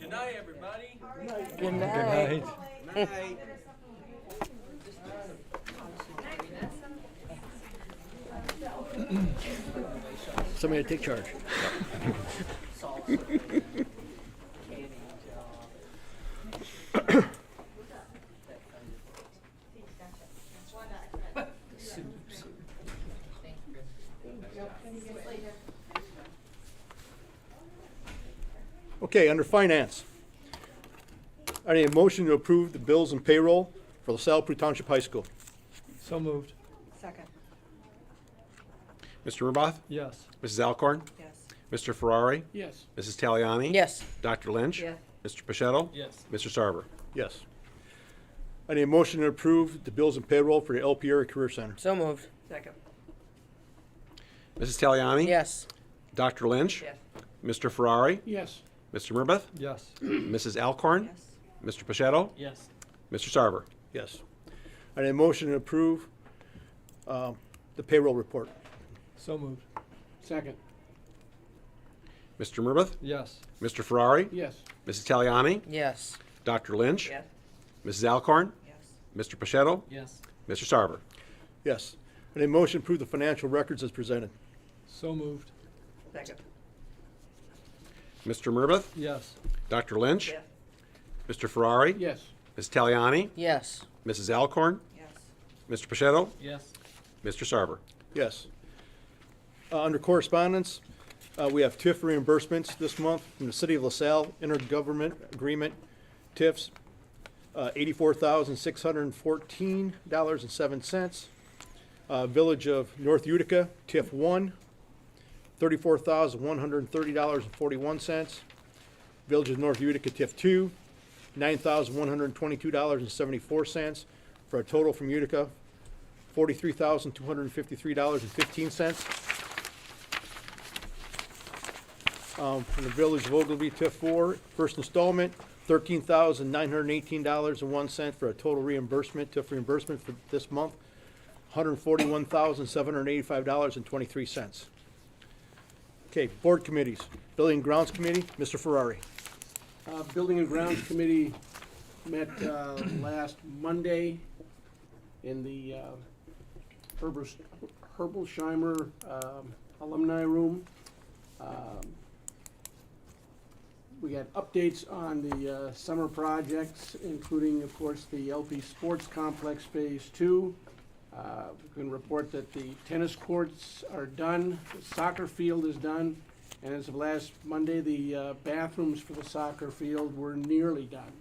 Good night, everybody. Good night. Somebody to take charge. Okay, under finance. I need a motion to approve the bills and payroll for LaSalle Pre Township High School. So moved. Second, Mr. Murbaugh? Yes. Mrs. Alcorn? yes. Mr. Ferrari? Yes. Mrs. Taliani? Yes. Dr. Lynch? Yes. Mr. Pachetto? Yes. Mr. Sarver? Yes. I need a motion to approve the bills and payroll for the El Pierre Career Center. So moved. Second, Mrs. Taliani? Yes. Dr. Lynch? yes. Mr. Ferrari? Yes. Mr. Murbaugh? Yes. Mrs. Alcorn? Yes. Mr. Pachetto? Yes. Mr. Sarver? Yes. I need a motion to approve um, the payroll report. So moved. Second. Mr. Murbaugh? Yes. Mr. Ferrari? Yes. Mrs. Taliani? Yes. Dr. Lynch? Yes. Mrs. Alcorn? Yes. Mr. Pachetto? Yes. Mr. Sarver? Yes. I need a motion to approve the financial records as presented. So moved. Second, Mr. Murbaugh? Yes. Dr. Lynch? yes, Mr. Ferrari? Yes. Mrs. Taliani? Yes. Mrs. Alcorn? yes. Mr. Pachetto? Yes. Mr. Sarver? Yes. Uh, Under correspondence, uh, we have TIF reimbursements this month from the City of LaSalle Intergovernment Agreement, TIFs, uh, $84,614.07. Uh, Village of North Utica, TIF 1, $34,130.41. Village of North Utica, TIF 2, $9,122.74, for a total from Utica, forty-three thousand, two hundred and fifty-three dollars and fifteen cents. Um, from the Village of Ogilvy, TIF four, first installment, thirteen thousand, nine hundred and eighteen dollars and one cent for a total reimbursement, TIF reimbursement for this month, hundred and forty-one thousand, seven hundred and eighty-five dollars and twenty-three cents. Okay, board committees, Building and Grounds Committee, Mr. Ferrari. Uh, Building and Grounds Committee met uh, last Monday in the uh, Herbers- Herbolsheimer um, Alumni Room. Um, We got updates on the uh, summer projects, including, of course, the LP Sports Complex Phase Two. Uh, We can report that the tennis courts are done, the soccer field is done, and as of last Monday, the uh, bathrooms for the soccer field were nearly done.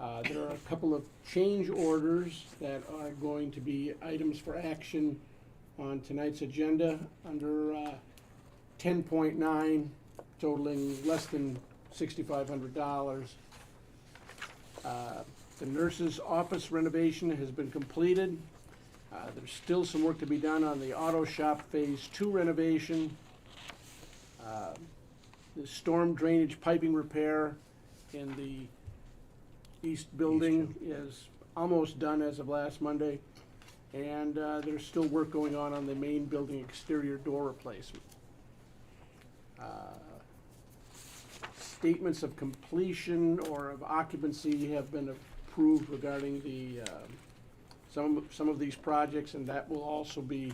Uh, There are a couple of change orders that are going to be items for action on tonight's agenda under uh, 10.9 totaling less than $6,500. Uh, The nurse's office renovation has been completed. Uh, There's still some work to be done on the auto shop Phase 2 renovation the storm drainage piping repair in the east building is almost done as of last Monday. And uh, there's still work going on on the main building exterior door replacement. Uh, Statements of completion or of occupancy have been approved regarding the, um, some, some of these projects, and that will also be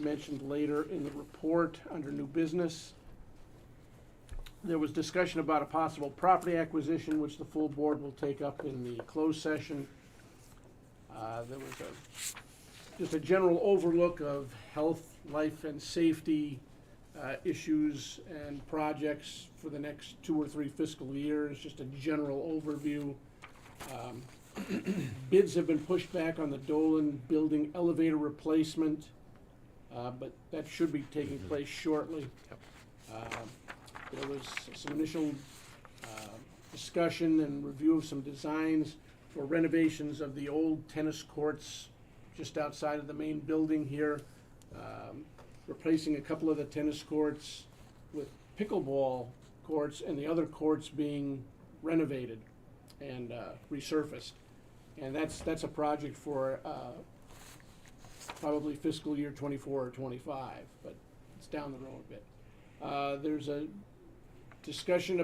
mentioned later in the report under new business. There was discussion about a possible property acquisition, which the full board will take up in the closed session. Uh, There was a, just a general overlook of health, life, and safety uh, issues and projects for the next two or three fiscal years, just a general overview. Um, Bids have been pushed back on the Dolan Building elevator replacement, uh, but that should be taking place shortly. Um, there was some initial uh, discussion and review of some designs for renovations of the old tennis courts just outside of the main building here, um, replacing a couple of the tennis courts with pickleball courts and the other courts being renovated and uh, resurfaced. And that's, that's a project for uh, probably fiscal year twenty-four or twenty-five, but it's down the road a bit. Uh, There's a discussion